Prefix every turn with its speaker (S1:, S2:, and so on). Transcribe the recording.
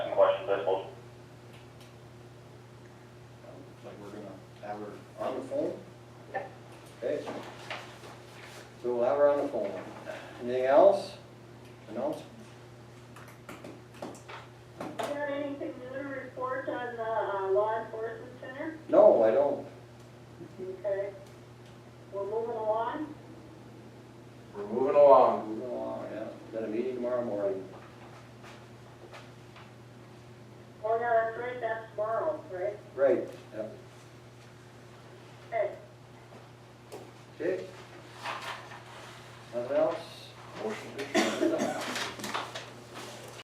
S1: else? Announcement?
S2: Got anything new to report on the uh, law enforcement center?
S1: No, I don't.
S2: Okay. We're moving along.
S3: We're moving along.
S1: Moving along, uh, yeah. Got a meeting tomorrow morning.
S2: Oh, yeah, that's right, that's tomorrow, right?
S1: Right,